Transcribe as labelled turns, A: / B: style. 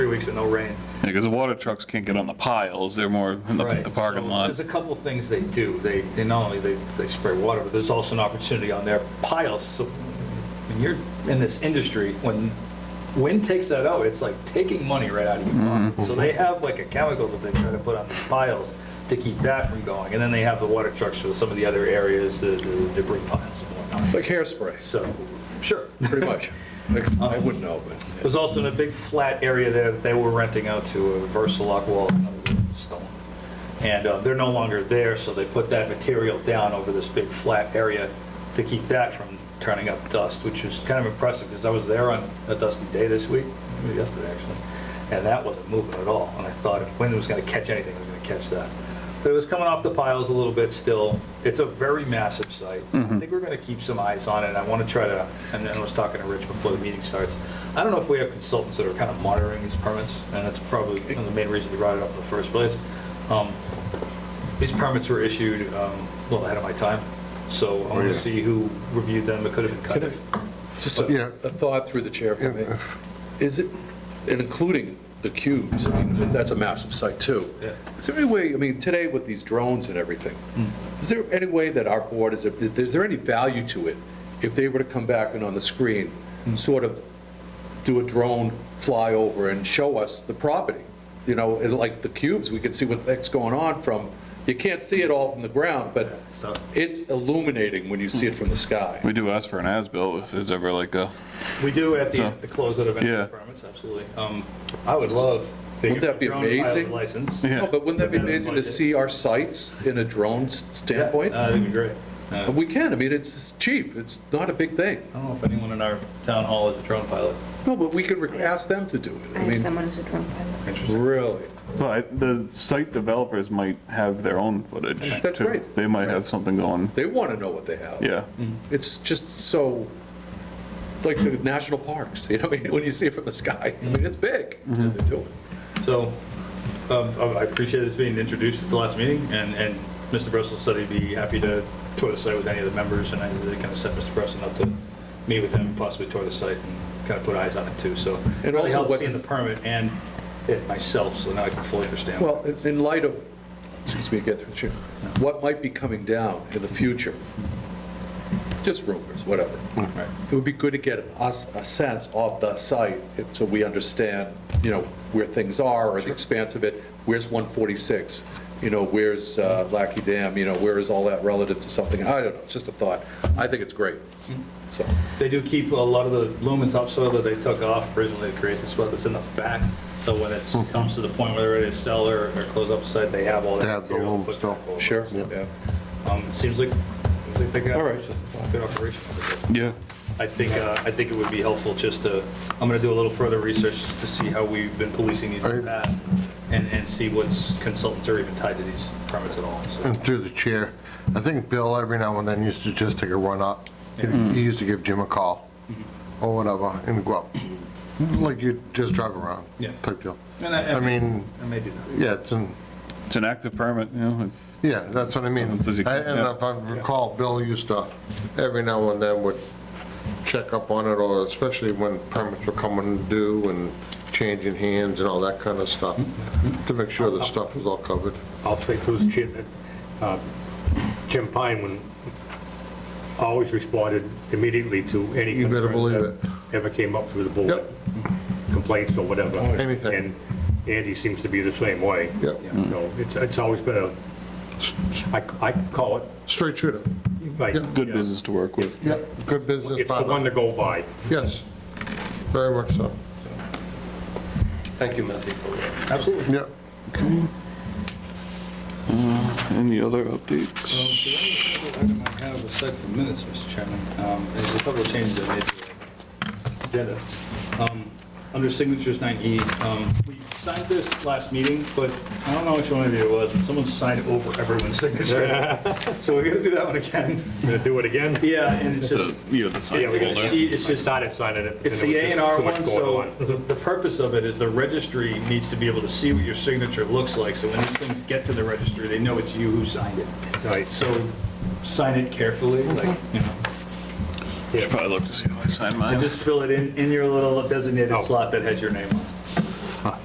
A: weeks of no rain.
B: because the water trucks can't get on the piles, they're more in the-
A: Right,
B: the parking
A: so
B: lot.
A: There's a couple things they do. They, they not only, they, they spray water, but there's also an opportunity on their piles. So when you're in this industry, when wind takes that out, it's like taking money right out of your
B: Mm-hmm.
A: pocket. So they have like a chemical that they try to put on these piles to keep that from going. And then they have the water trucks for some of the other areas, the the debris piles and whatnot.
C: It's like hairspray,
A: So, sure.
C: pretty much. Like, I wouldn't know, but
A: There's also a big flat area there that they were renting out to a Versalock wall, another stone. And uh, they're no longer there, so they put that material down over this big flat area to keep that from turning up dust, which was kind of impressive, because I was there on a dusty day this week, maybe yesterday actually, and that wasn't moving at all. And I thought if wind was going to catch anything, it was going to catch that. But it was coming off the piles a little bit still. It's a very massive site. I think we're going to keep some eyes on it. I want to try to, and then I was talking to Rich before the meeting starts. I don't know if we have consultants that are kind of monitoring these permits, and that's probably one of the main reason we brought it up in the first place. Um, These permits were issued um, well ahead of my time, so I want to see who reviewed them. It could have been cut.
C: Oh, Could just
D: Yeah.
C: a, a thought through the chair for me. Is it, and including the cubes, I mean, that's a massive site too.
A: Yeah.
C: Is there any way, I mean, today with these drones and everything, is there any way that our board, is, there- is there any value to it? If they were to come back and on the screen, sort of do a drone flyover and show us the property. You know, and like the cubes, we could see what the heck's going on from, you can't see it all from the ground, but
A: So-
C: it's illuminating when you see it from the sky.
B: We do ask for an as-built if there's ever like a,
A: We do at the,
B: So-
A: at the closeout of
B: Yeah.
A: any permits, absolletely. Um, I would love. to
C: Wouldn't
A: get
C: that be
A: my own pilot
C: amazing?
A: License.
B: Yeah.
C: No, but wouldn't that be
A: Yeah.
C: amazing to see our sites in a drone s- standpoint?
A: Yeah, uh, That'd be great. Uh,
C: And we can, I mean, it's cheap, it's not a big thing.
A: I don't know if anyone in our town hall is a drone pilot.
C: No, but we could re- ask them to do it.
E: I
C: I
E: have
C: mean,
E: someone who's a drone pilot.
A: Interesting.
C: really.
B: but the site developers might have their own footage.
C: That's
B: too.
C: right.
B: They might have something going,
C: They want to know what they have.
B: yeah.
C: It's just so, like the national parks, you know, I mean, when you see it from the sky, I mean, it's big.
B: Mm-hmm.
C: They do it.
A: So, um, I I appreciate this being introduced at the last meeting, and, and Mr. Bristol said he'd be happy to tour the site with any of the members, and I kind of set Mr. Bristol up to meet with him, and possibly tour the site, and kind of put eyes on it too, so.
C: And
A: Really
C: also
A: helped
C: what's-
A: Seeing the permit and it myself, so now I can fully understand.
C: Well, in- in light of, excuse me, get through the chair, what might be coming down in the future, just rumors, whatever.
A: Right.
C: It would be good to get us a sense of the site, so we understand, you know, where things are, or the expanse of it, where's 146, you know, where's uh, Lackey Dam, you know, where is all that relative to something, I don't know, it's just a thought. I think it's great, so.
A: They do keep a lot of the loam and topsoil that they took off originally to create this well that's in the back. So when it comes to the point where they're ready to sell or, or close up the site, they have all
D: Mm-hmm. They
A: that
D: have the
A: material.
D: loam
A: to put
D: still.
A: back over.
C: Sure,
A: So,
C: yeah.
A: Um, it seems like, seems like they got.
C: All right, just a thought.
A: Good operation.
B: Yeah.
A: I think, uh, I think it would be helpful just to, I'm gonna do a little further research to see how we've been policing these in the past and, and see what's consultants are even tied to these permits at all, so.
D: And through the chair, I think Bill every now and then used to just take a run up. He used to give Jim a call or whatever and go up, like you just drive around.
A: Yeah.
D: Type deal.
A: And I-
D: I mean,
A: I may do that.
D: yeah, it's an,
B: It's an active permit, you know,
D: yeah, that's what I mean.
B: Says you
D: I-
B: can-
D: And
B: yeah.
D: if I recall, Bill used to, every now and then would check up on it or especially when permits were coming due and changing hands and all that kind of stuff to make sure the stuff was all covered.
F: I'll say through Jim, uh, Jim Pine, when, always responded immediately to any
D: You better believe
F: concerns that ever came up through the board,
D: Yep.
F: complaints or whatever.
D: Anything.
F: And Andy seems to be the same way.
D: Yep.
F: So it's, it's always been a, I, I call it,
D: Straight shooter.
F: like,
D: Yep.
B: good business to work with.
D: Yep, good business.
F: it's the
D: partner.
F: one to go by.
D: Yes, very much so.
F: Thank you, Matthew.
A: Absolutely.
D: Yep.
B: Any other updates?
A: I have a set of minutes, Mr. Chairman. Um, There's a couple of changes I made to the agenda. Um, Under signatures 9E, um, we signed this last meeting, but I don't know which one of you it was, but someone signed over everyone's signature. So we're gonna do that one again.
F: Gonna do it again?
A: Yeah, and it's just,
B: You have the site
A: it's a
B: folder.
A: sheet, it's just
F: Started signing it.
A: it's
F: and
A: the A and
F: there was just
A: R
F: too much
A: one,
F: going
A: so
F: on.
A: the the purpose of it is the registry needs to be able to see what your signature looks like, so when these things get to the registry, they know it's you who signed it.
F: Right.
A: So sign it carefully, like, you know,
B: Should probably look to see if I signed
A: and
B: mine.
A: just fill it in, in your little designated
F: Oh.
A: slot that has your name on